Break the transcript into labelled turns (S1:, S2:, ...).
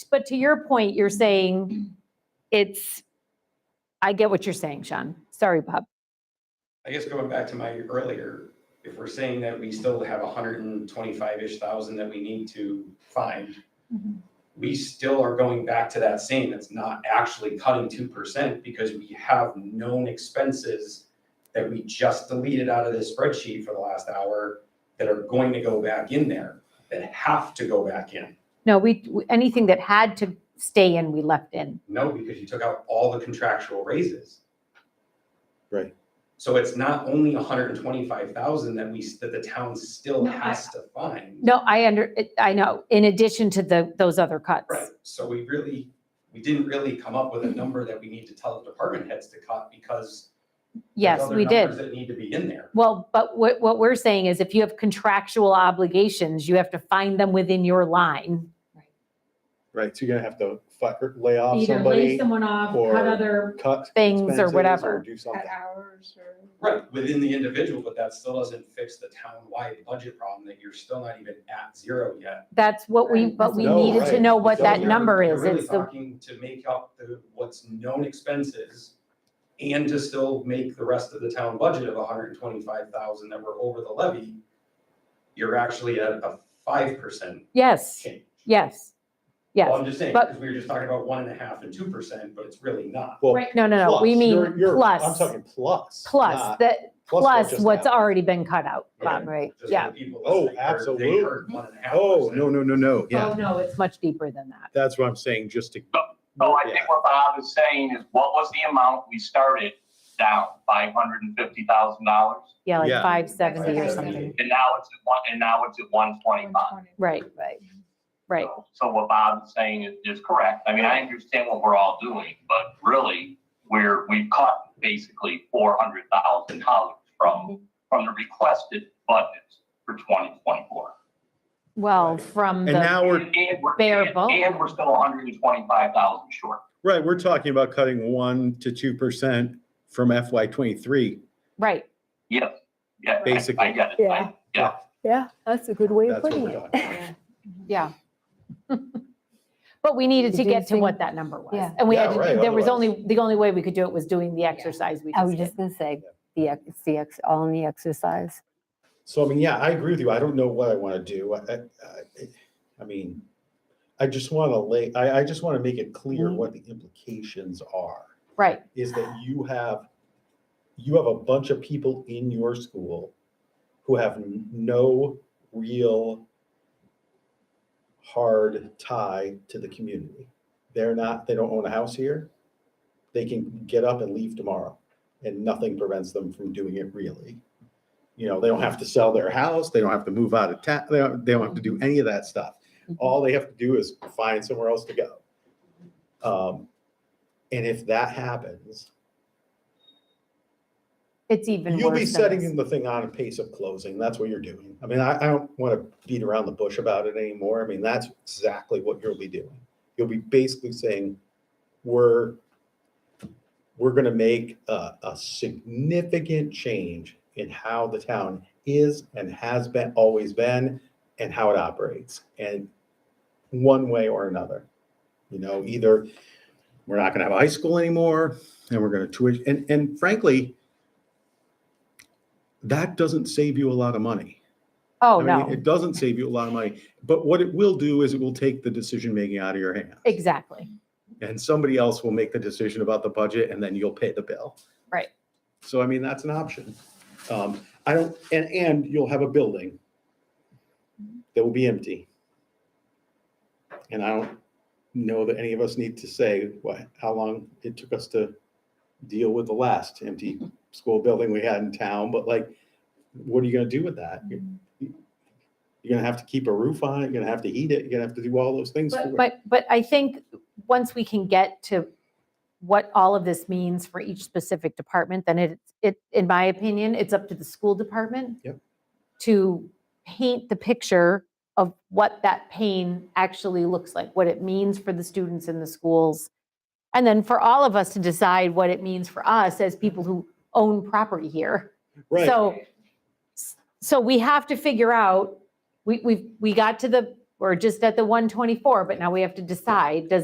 S1: But to your point, you're saying it's, I get what you're saying, Sean. Sorry, Bob.
S2: I guess going back to my earlier, if we're saying that we still have hundred and twenty-five-ish thousand that we need to find,
S3: Mm-hmm.
S2: we still are going back to that same, it's not actually cutting two percent because we have known expenses that we just deleted out of this spreadsheet for the last hour that are going to go back in there, that have to go back in.
S1: No, we, we- anything that had to stay in, we left in.
S2: No, because you took out all the contractual raises.
S4: Right.
S2: So it's not only hundred and twenty-five thousand that we, that the town still
S1: No, I-
S2: has to find.
S1: No, I under, I know, in addition to the, those other cuts.
S2: Right, so we really, we didn't really come up with a number that we need to tell the department heads to cut because there's
S1: Yes,
S2: other
S1: we
S2: numbers
S1: did.
S2: That need to be in there.
S1: Well, but what, what we're saying is if you have contractual obligations, you have to find them within your line.
S4: Right, so you're gonna have to fire, lay off
S3: Either
S4: somebody,
S3: lay someone off,
S4: or-
S3: cut other
S4: cut.
S1: Things or
S4: expenses,
S1: whatever. Uh,
S4: Do something.
S3: cut hours or.
S2: Right, within the individual, but that still doesn't fix the town-wide budget problem that you're still not even at zero yet.
S1: That's what we,
S3: Right.
S1: but we
S4: No,
S1: needed to
S4: right.
S1: know what
S2: So
S1: that
S2: you're-
S1: number
S2: you're
S1: is.
S2: really
S1: It's the,
S2: Talking to make up the, what's known expenses and to still make the rest of the town budget of hundred and twenty-five thousand that were over the levy, you're actually at a five percent
S1: yes,
S2: change.
S1: yes,
S2: Well,
S1: yes.
S2: I'm just saying,
S1: but-
S2: because we were just talking about one and a half and two percent, but it's really not.
S4: Well,
S1: No, no, no,
S4: plus,
S1: we mean
S4: you're- you're- I'm
S1: plus,
S4: talking plus.
S1: plus,
S4: not-
S1: that,
S4: what
S1: plus
S4: just
S1: what's
S4: happened.
S1: already been cut out, Bob,
S2: Okay.
S1: right?
S2: Just for
S1: Yeah,
S2: the people
S4: Oh,
S2: listening, they're- they
S4: absolutely.
S2: heard one and a half
S4: Oh,
S2: percent.
S4: no, no, no, no,
S1: oh,
S4: yeah,
S1: no, it's much deeper than that.
S4: that's what I'm saying, just to.
S5: So I
S4: Yeah.
S5: think what Bob is saying is what was the amount we started down, five hundred and fifty thousand dollars?
S1: Yeah, like
S4: Yeah.
S1: five seventy or
S2: 570.
S1: something.
S5: And now it's at one, and now it's at one twenty-five.
S3: 120.
S1: Right, right, right.
S5: So what Bob is saying is, is correct. I mean, I understand what we're all doing, but really, we're, we've cut basically four hundred thousand dollars from,
S1: Mm-hmm.
S5: from the requested budgets for twenty twenty-four.
S1: Well,
S4: Right.
S1: from
S4: And
S1: the,
S4: now we're,
S1: bare
S5: And we're
S1: bones.
S5: still hundred and twenty-five thousand short.
S4: right, we're talking about cutting one to two percent from FY twenty-three.
S1: right,
S5: Yes, yeah, I-
S4: Basically.
S5: I get it. I-
S6: Yeah. Yeah, that's a good way of
S4: That's what
S6: putting
S4: we're
S6: it.
S4: talking.
S1: yeah. But we needed to get to
S6: Reducing-
S1: what that number was.
S6: Yeah.
S1: And we
S4: Yeah,
S1: had,
S4: right,
S1: to- there was
S4: otherwise-
S1: only, the only way we could do it was doing the exercise Oh, we
S6: I was
S1: just did.
S6: just gonna say, the, ex- it's the, ex- all in the exercise.
S4: So I mean, yeah, I agree with you. I don't know what I want to do. I, I, I mean, I just want to lay, I, I just want to make it
S1: Mm-hmm.
S4: clear what the implications are.
S1: Right,
S4: Is that you have, you have a bunch of people in your school who have n- no real hard tie to the community. They're not, they don't own a house here. They can get up and leave tomorrow and nothing prevents them from doing it really. You know, they don't have to sell their house, they don't have to move out of town, they don't, they don't have to do any of that stuff. All they have to do is find somewhere else to go. Um, and if that happens,
S1: it's even
S4: you'll be
S1: worse than
S4: setting
S1: this.
S4: the thing on a pace of closing, that's what you're doing. I mean, I, I don't want to beat around the bush about it anymore, I mean, that's exactly what you'll be doing. You'll be basically saying, we're, we're gonna make a, a significant change in how the town is and has been, always been, and how it operates, and one way or another. You know, either we're not gonna have a high school anymore, and we're gonna tuition, and, and frankly, that doesn't save you a lot of money.
S1: Oh,
S4: I mean,
S1: no,
S4: It doesn't save you a lot of money, but what it will do is it will take the decision making out of your hands.
S1: exactly.
S4: And somebody else will make the decision about the budget and then you'll pay the bill.
S1: Right.
S4: So I mean, that's an option. Um, I don't, and, and you'll have a building that will be empty. And I don't know that any of us need to say what, how long it took us to deal with the last empty school building we had in town, but like, what are you gonna do with that? You're
S1: Mm-hmm.
S4: you're gonna have to keep a roof on it, you're gonna have to heat it, you're gonna have to do all those things. for
S1: But,
S4: it.
S1: but, but I think once we can get to what all of this means for each specific department, then it, it, in my opinion, it's up to the school department.
S4: Yep.
S1: To paint the picture of what that pain actually looks like, what it means for the students in the schools. And then for all of us to decide what it means for us as people who own property here.
S4: Right.
S1: So, so we have to figure out, we, we, we got to the we're just at the 124, but now we have to decide, does